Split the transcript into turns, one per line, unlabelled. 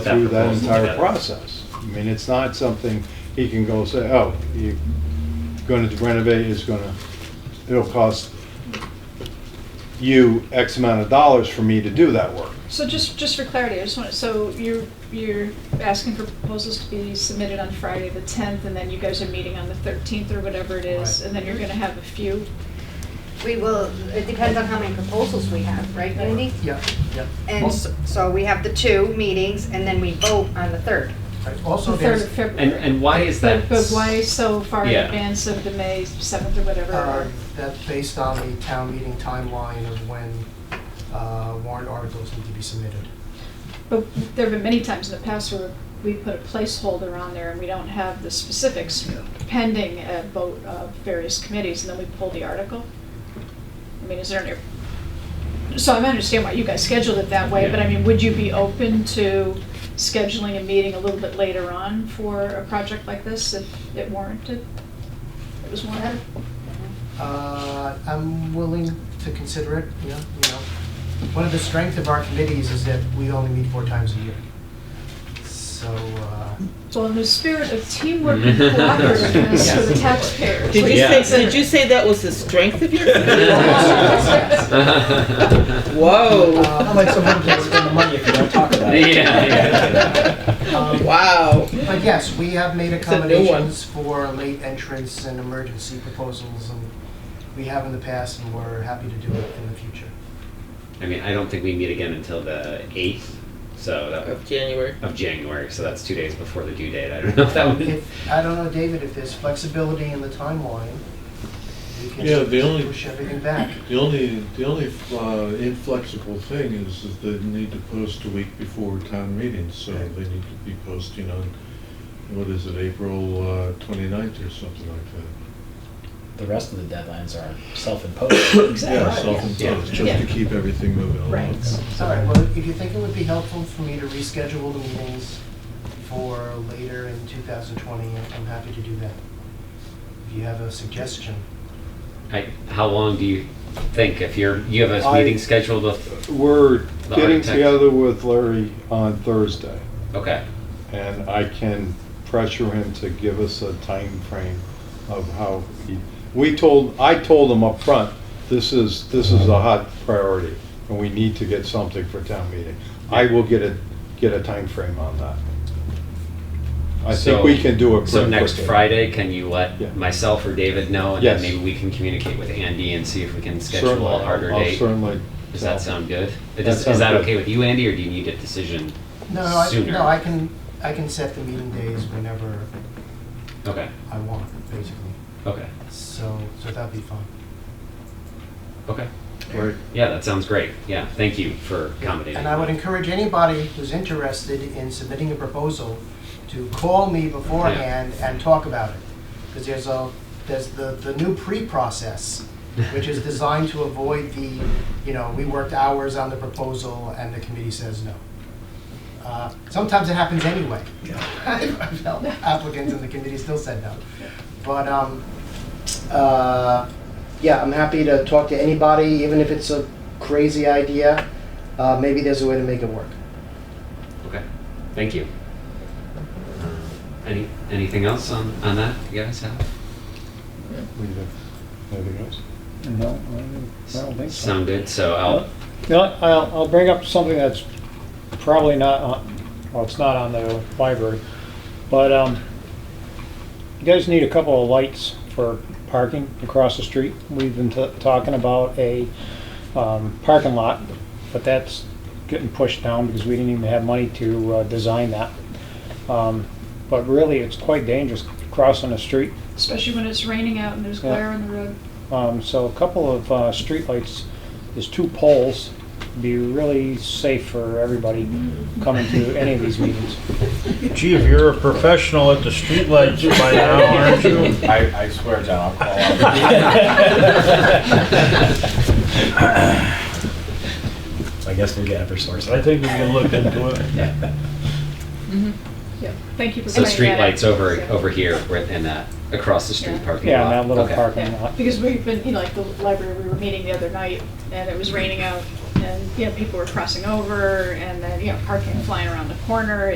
through that
proposal
entire
together.
process. I mean, it's not something he can go say, oh, you're going to renovate, it's going to, it'll cost you X amount of dollars for me to do that work.
So just, just for clarity, I just want, so you're, you're asking for proposals to be submitted on Friday, the tenth, and then you guys are meeting on the thirteenth or whatever it is,
Right.
and then you're gonna have a few?
We will, it depends on how many proposals we have, right, Andy?
Yeah, yeah.
And s-
Also,
so we have the two meetings, and then we vote on the third.
right,
The third
also
of
there's,
And,
February.
and why is that?
But, but why so far in
Yeah.
advance of the May seventh or whatever?
uh,
or-
that's based on the town meeting timeline of when uh, warrant articles need to be submitted.
But there have been many times in the past where we put a placeholder on there and we don't have the specifics pending a vote of various committees, and then we pull the article? I mean, is there any, so I understand why you guys scheduled it that way, but I mean, would you be open to scheduling a meeting a little bit later on for a project like this if it warranted? It was warranted?
Uh, I'm willing to consider it, you know, you know. One of the strengths of our committees is that we only meet four times a year. So, uh,
Well, in the spirit of teamwork and cooperativeness for the taxpayers,
Did you
please
Yeah.
say,
consider.
did you say that was the strength of your?
Oh.
Whoa,
uh, but-
Yeah, yeah.
um,
wow.
But yes, we have made
a new one.
accommodations for late entrance and emergency proposals, and we have in the past, and we're happy to do it in the future.
I mean, I don't think we meet again until the eighth, so that would,
Of January.
of January, so that's two days before the due date. I don't know if that would.
If, I don't know, David, if there's flexibility in the timeline, we
Yeah, the
can
only-
push everything back.
The only, the only uh, inflexible thing is that they need to post a week before town meeting, so
Right.
they need to be posting on, what is it, April uh, 29th or something like that.
the rest of the deadlines are self-imposed.
Yeah,
Exactly.
self-imposed,
Yeah.
just to keep everything moving along.
Right.
All right, well, if you think it would be helpful for me to reschedule the meetings for later in 2020, I'm happy to do that. If you have a suggestion.
I, how long do you think if you're you have a
I-
meeting scheduled with?
We're
The
getting
architect.
together with Larry on Thursday,
Okay.
and I can pressure him to give us a time frame of how he, we told, I told him up front, this is, this is a hot priority, and we need to get something for town meeting. I will get a, get a time frame on that. I think
So-
we can do it pretty
So next
quickly.
Friday, can you
Yeah.
let myself or David know, and
Yes.
then maybe we can communicate with Andy and see if we can schedule
Certainly,
a harder
I'll
date.
Certainly.
Does that sound good?
That
It does-
sounds
is that
good.
okay with you, Andy, or do you need a decision?
No, no, I,
Sooner.
no, I can, I can set the meeting days whenever
Okay.
I want, basically.
Okay.
So, so that'd be fun.
Okay.
Right.
Yeah, that sounds great. Yeah, thank you for accommodating.
And I would encourage anybody who's interested in submitting a proposal to call me beforehand and talk about it. Because there's a, there's the, the new pre-process, which is designed to avoid the, you know, we worked hours on the proposal and the committee says no. Uh, Sometimes it happens anyway. I've helped Applicants and the committee still said no. But, um, uh, yeah, I'm happy to talk to anybody, even if it's a crazy idea. Uh, maybe there's a way to make it work.
Okay, thank you. Uh, Any, anything else on, on that you guys have?
We do. Anything else?
No, I don't think so.
Sound good, so I'll,
No, I'll, I'll bring up something that's probably not on, well, it's not on the library, but, um, you guys need a couple of lights for parking across the street. We've been t- talking about a, um, parking lot, but that's getting pushed down because we didn't even have money to, uh, design that. Um, but really, it's quite dangerous crossing the street
Especially when it's raining out and there's
Yeah.
glare on the road.
Um, so a couple of uh, streetlights, there's two poles, be really safe for everybody coming to any of these meetings.
Gee, if you're a professional at the streetlights by now, aren't you?
I, I swear, John, I'll call I guess we'll get Eversource.
I think we can look into it.
Yeah, thank you for
so
bringing that up.
streetlights over,
Yeah.
over here, right in that, across the street
Yeah.
parking lot.
Yeah, in that little
Okay.
parking
Yeah,
lot.
because we've been, you know, like the library, we were meeting the other night, and it was raining out, and, you know, people were crossing over, and then, you know, parking flying around the corner,